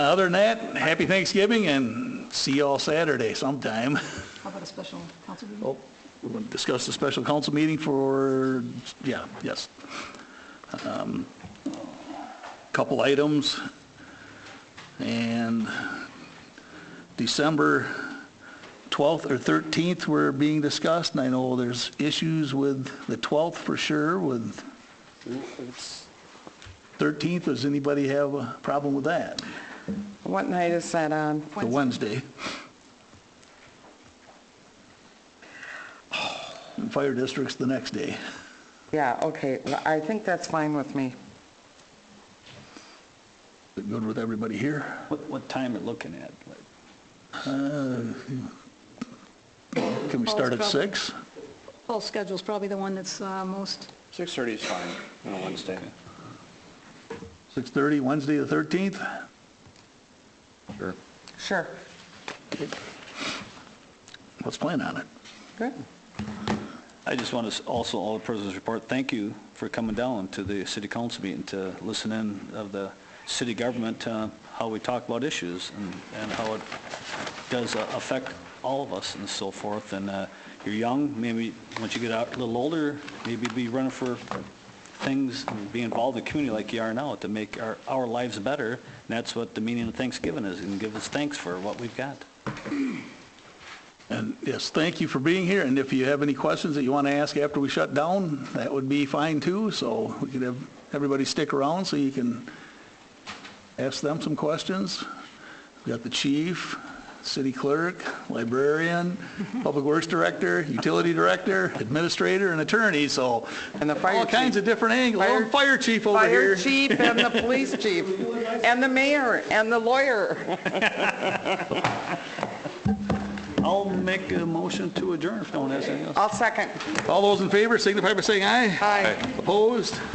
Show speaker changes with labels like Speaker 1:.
Speaker 1: Other than that, happy Thanksgiving and see y'all Saturday sometime.
Speaker 2: How about a special council meeting?
Speaker 1: Oh, we're going to discuss the special council meeting for, yeah, yes. Um, Couple items. And December 12th or 13th were being discussed, and I know there's issues with the 12th for sure, with 13th. Does anybody have a problem with that?
Speaker 3: What night is that on?
Speaker 1: The Wednesday.
Speaker 4: Oh.
Speaker 1: And fire district's the next day.
Speaker 3: Yeah, okay, well, I think that's fine with me.
Speaker 1: Is it Good with everybody here?
Speaker 4: What, what time are looking at?
Speaker 1: Uh, Can we start at six?
Speaker 2: Paul's schedule's probably the one that's uh, most,
Speaker 4: 6:30 is fine on a Wednesday.
Speaker 1: 6:30, Wednesday the 13th?
Speaker 3: Sure.
Speaker 1: Let's plan on it.
Speaker 3: Good.
Speaker 4: I just want to also, all the presidents report, thank you for coming down to the city council meeting to listen in of the city government, uh, how we talk about issues and, and how it does uh, affect all of us and so forth. And uh, you're young, maybe once you get out a little older, maybe be running for things, and be involved in the community like you are now to make our, our lives better. And that's what the meaning of Thanksgiving is, and give us thanks for what we've got.
Speaker 1: And yes, thank you for being here, and if you have any questions that you want to ask after we shut down, that would be fine too, so we could have everybody stick around so you can ask them some questions. We've got the chief, city clerk, librarian, public works director, utility director, administrator, and attorney, so
Speaker 3: And the fire
Speaker 1: all kinds
Speaker 3: chief.
Speaker 1: of different angles. Oh,
Speaker 3: Fire-
Speaker 1: and fire chief over
Speaker 3: Fire
Speaker 1: here.
Speaker 3: chief and the police chief, and the mayor, and the lawyer.
Speaker 4: I'll make a motion to adjourn if no one has anything else.
Speaker 3: I'll second.
Speaker 1: All those in favor signify by saying aye.
Speaker 3: Aye.
Speaker 1: Opposed?